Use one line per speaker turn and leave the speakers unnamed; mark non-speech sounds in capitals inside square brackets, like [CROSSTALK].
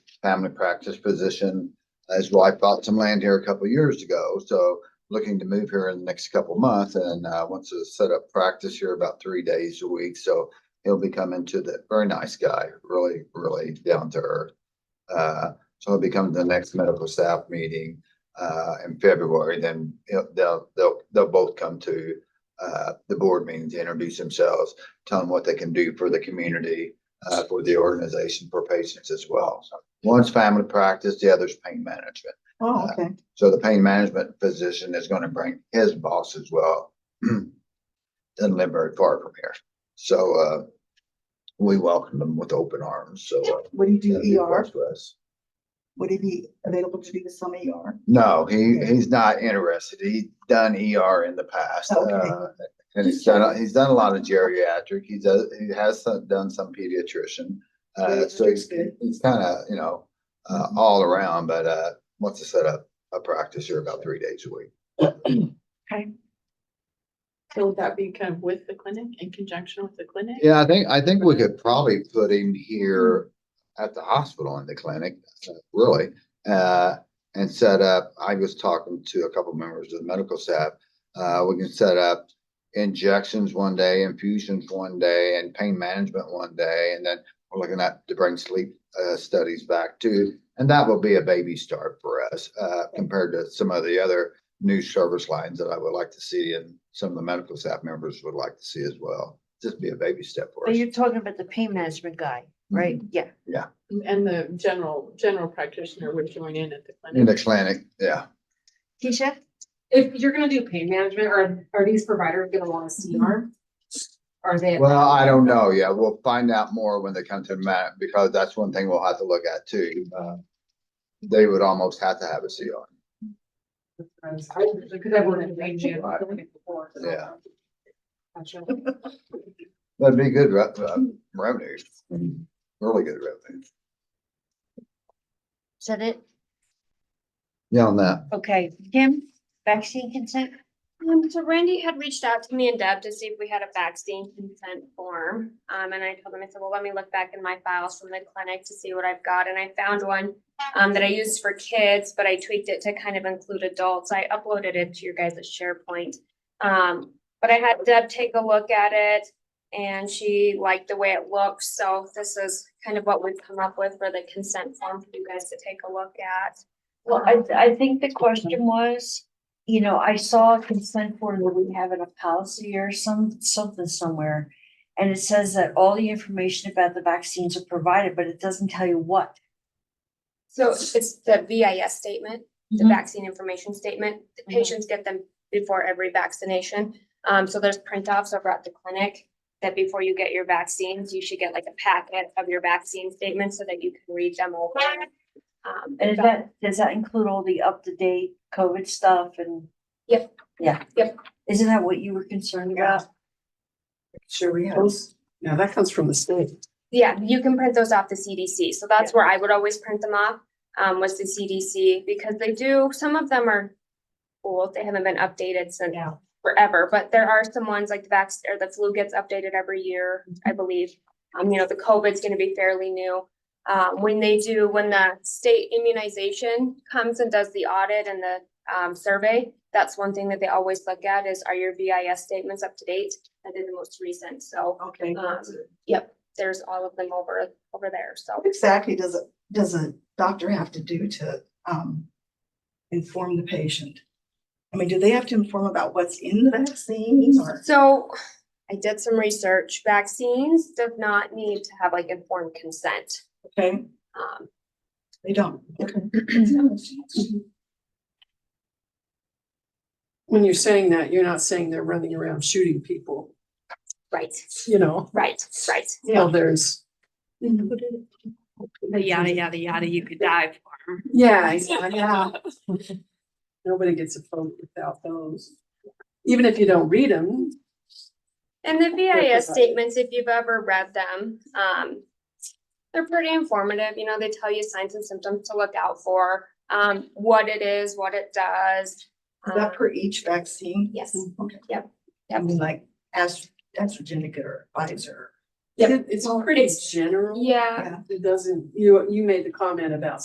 family practice position. His wife bought some land here a couple of years ago, so looking to move here in the next couple of months and uh, wants to set up practice here about three days a week. So he'll be coming to the, very nice guy, really, really down to earth. Uh, So he'll be coming to the next medical staff meeting uh, in February, then he'll- they'll, they'll, they'll both come to uh, the board meetings, introduce themselves, tell them what they can do for the community, uh, for the organization, for patients as well. So One's family practice, the other's pain management.
Oh, okay.
So the pain management physician is gonna bring his boss as well. [CLEARS THROAT] Doesn't live very far from here. So, uh, we welcome them with open arms, so. uh,
Would he do
that'd be a
ER?
plus for us.
Would he be available to do some ER?
No, he, he's not interested. He's done ER in the past.
Okay.
uh, And he's done, a- he's done a lot of geriatric. He does, he has some- done some pediatrician. Uh, so he's,
Geriatric's good.
he's kinda, you know, uh, all around, but, uh, wants to set up a practice here about three days a week.
So would that be kind of with the clinic, in conjunction with the clinic?
Yeah, I think, I think we could probably put him here at the hospital in the clinic, uh, really. Uh, and set up, I was talking to a couple members of the medical staff. Uh, we can set up injections one day, infusions one day, and pain management one day, and then we're looking at to bring sleep uh, studies back too. And that will be a baby start for us, uh, compared to some of the other new service lines that I would like to see and some of the medical staff members would like to see as well. Just be a baby step for
But
us.
you're talking about the pain management guy, right? Yeah.
And the general, general practitioner would join in at the
In the
clinic.
clinic, yeah.
Keisha?
If you're gonna do pain management, are, are these providers gonna want to see CR? Are they?
Well, I don't know. Yeah, we'll find out more when they come to Matt, because that's one thing we'll have to look at too. Uh, They would almost have to have a CR.
Because I worked in pain management before. so-
Yeah.
Gotcha.
That'd be good re- uh, revenue, really good revenue.
Is that it?
Yeah, on that.
Okay, Kim, vaccine consent?
Um, so Randy had reached out to me in Deb to see if we had a vaccine consent form. Um, and I told him, I said, well, let me look back in my files from the clinic to see what I've got. And I found one um, that I used for kids, but I tweaked it to kind of include adults. I uploaded it to your guys' SharePoint. Um, but I had Deb take a look at it and she liked the way it looks. So this is kind of what we've come up with for the consent form for you guys to take a look at.
Well, I, I think the question was, you know, I saw a consent form that we have in a policy or some, something somewhere. And it says that all the information about the vaccines are provided, but it doesn't tell you what.
So it's the VIS statement, the
Mhm.
vaccine information statement. The
Mhm.
Patients get them before every vaccination. Um, so there's printouts over at the clinic that before you get your vaccines, you should get like a packet of your vaccine statement so that you can read them over. Um,
And is that, does that include all the up-to-date COVID stuff and?
Yep.
Yeah.
Yep.
Isn't that what you were concerned about?
Sure, we have.
Now, that comes from the state.
Yeah, you can print those off the CDC. So that's where I would always print them off, um, was the CDC, because they do, some of them are old. They haven't been updated since
Yeah.
forever, but there are some ones like the vax, or the flu gets updated every year, I believe. Um, you know, the COVID's gonna be fairly new. Um, when they do, when the state immunization comes and does the audit and the, um, survey, that's one thing that they always look at is are your VIS statements up to date? That is the most recent, so
Okay.
Um, Yep, there's all of them over, over there, so.
What exactly does a, does a doctor have to do to, um, inform the patient? I mean, do they have to inform about what's in the vaccine or?
So I did some research. Vaccines do not need to have like informed consent.
Okay,
Um,
they don't. Okay.
When you're saying that, you're not saying they're running around shooting people,
right,
you know,
right, right.
Well, there's.
Mm-hmm.
The yada, yada, yada, you could die for.
[LAUGHS]
Yeah, yeah, yeah. Nobody gets a phone without those. Even if you don't read them,
And the
provided.
VIS statements, if you've ever read them, um, they're pretty informative, you know, they tell you signs and symptoms to look out for, um, what it is, what it does.
Is that
um,
per each vaccine?
Yes.
Okay.
Yep.
I mean, like Astra, AstraZeneca or Pfizer.
Yep.
It- It's pretty general.
Yeah.
It doesn't, you, you made the comment about